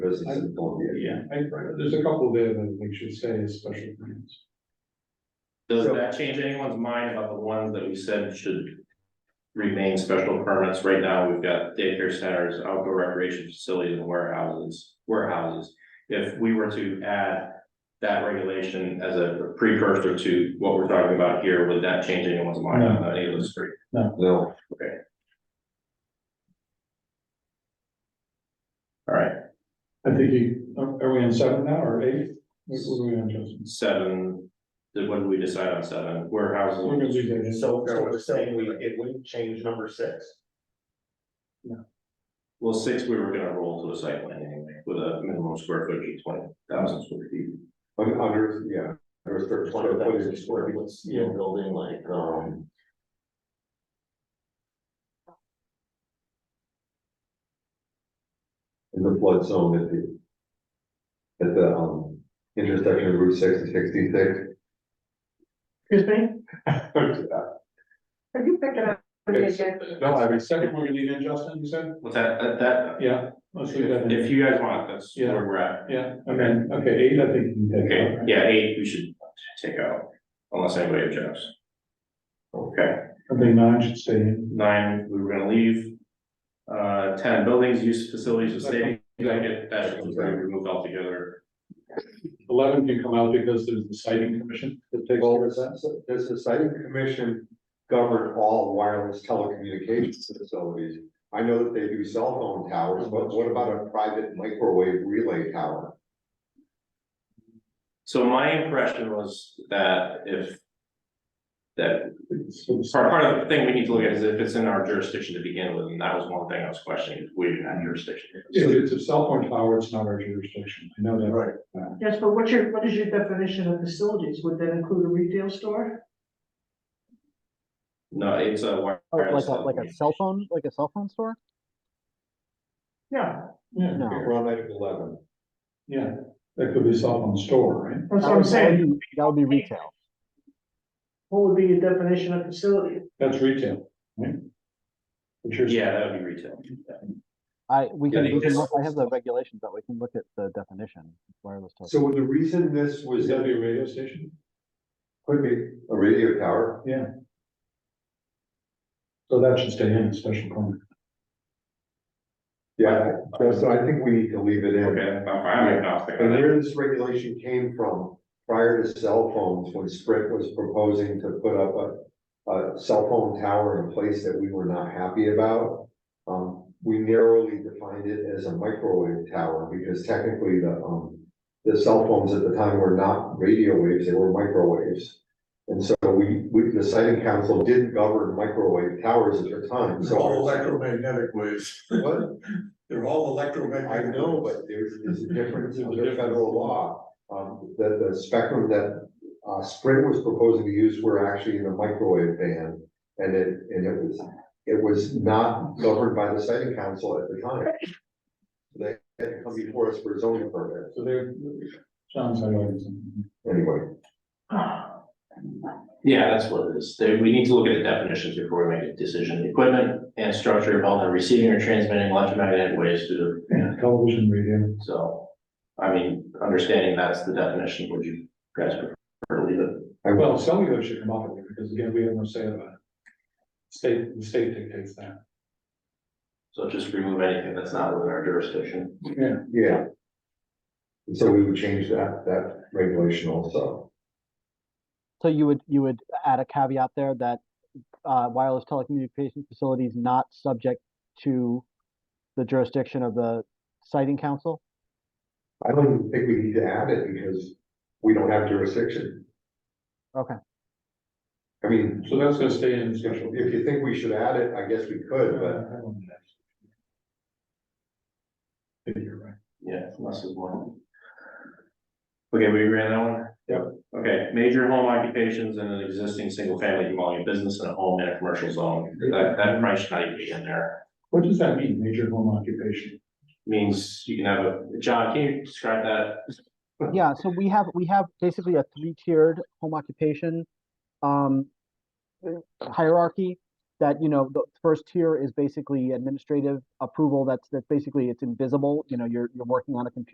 business in Columbia. Yeah, I, there's a couple there that we should say is special permits. does So- that change anyone's mind about the ones that we said should? Remain special permits, right now, we've got daycare centers, outdoor recreation facilities and warehouses, warehouses. If we were to add that regulation as a precursor to what we're talking about here, would that change anyone's mind on any of those three? No, All right, I think you, uh, are are we on seven now or eight? What what are we on, Justin? seven, did, what did we decide on seven, warehouses? We're gonna leave that in. So, so uh, we're saying we, it wouldn't change number six. Well, six, we were gonna roll to a site plan anyway, with a minimum square footage of twenty thousand square feet. un- under, yeah. Under thirty Twenty square thousand footage. square foot steel building like, um. in the flood zone at the. At the um intersection of Route six and sixty six. Excuse me, could you pick it up? Yes. No, I mean, second, we're gonna leave in, Justin, you said? What's that, that- that, Yeah, let's leave that in. if you guys want, that's Yeah. where we're at. Yeah, I mean, okay, eight, I think. you can take out, Okay, right? yeah, eight, we should take out, unless anybody objects. Okay, I think nine should stay in. nine, we were gonna leave. Uh, ten, buildings, use facilities, and stadiums, I get that should be removed altogether. Eleven can come out because there's the sighting commission that takes Well, care of there's, that. there's a siting commission govern all wireless telecommunications facilities. I know that they do cell phone towers, but what about a private microwave relay tower? So my impression was that if. That It's- Part, part of the thing we need to look at is if it's in our jurisdiction to begin with, and that was one thing I was questioning, if we didn't have jurisdiction. If it's a cell phone tower, it's not our jurisdiction. I know that. Right. Yes, but what's your, what is your definition of facilities? Would that include a retail store? No, it's a wire- Oh, wireless. like a, like a cell phone, like a cell phone store? Yeah, Yeah, No. Around item eleven. yeah, that could be cell phone store, right? that's That what I'm would- that would saying. be- That would be retail. What would be your definition of facility? That's retail, right? But you're- Yeah, that would be retail. I, we Yeah, can, they we can just- look, I have the regulations, but we can look at the definition, wireless token. So the reason this Would was, that could be a radio station? be a radio tower, So that should stay in, special permit. yeah, so so I think we need to leave it in. Okay, I'm I'm agnostic. And where this regulation came from, prior to cell phones, when Sprint was proposing to put up a, a cell phone tower in a place that we were not happy about. Um, we narrowly defined it as a microwave tower, because technically the, um, the cell phones at the time were not radio waves, they were microwaves. And so we, we, the siting council didn't govern microwave towers at their time, so. electromagnetic waves. What? They're all I electromagnetic. know, but there's, there's a difference under federal law, um, that the spectrum that, uh, Sprint was proposing to use were actually in a microwave band. And it, and it was, it was not governed by the siting council at the time. They had to come before us for zoning permit, So there, John's highlighting something. anyway, Yeah, that's what it is. They- we need to look at the definitions before we make a decision. Equipment and structure involved in receiving or transmitting electromagnetic waves through the, Television, radio. so. I mean, understanding that's the definition, would you guys prefer to leave it? I will, Well, cellular should come out of there, because again, we have no say about it. State, the state dictates that. So just remove anything that's not within our jurisdiction. Yeah. yeah. And so we would change that, that regulation also. So you would, you would add a caveat there that, uh, wireless telecommunication facility is not subject to the jurisdiction of the siting council? I don't even think we need to add it because we don't have jurisdiction. Okay. I mean, So that's gonna stay in special. uh, If you think we should add it, I guess we could, but I don't know. Maybe You're right. Yeah, less is one. Okay, we agree on that one? Yep. Okay, major home occupations in an existing single family dwelling, a business and a home in a commercial zone, that, that probably should not even be in there. What does that mean, major home occupation? Means you can have a, John, can you describe that? Yeah, so we have, we have basically a three-tiered home occupation um, uh, hierarchy. that, you know, the first tier is basically administrative approval, that's, that's basically, it's invisible, you know, you're, you're working on a computer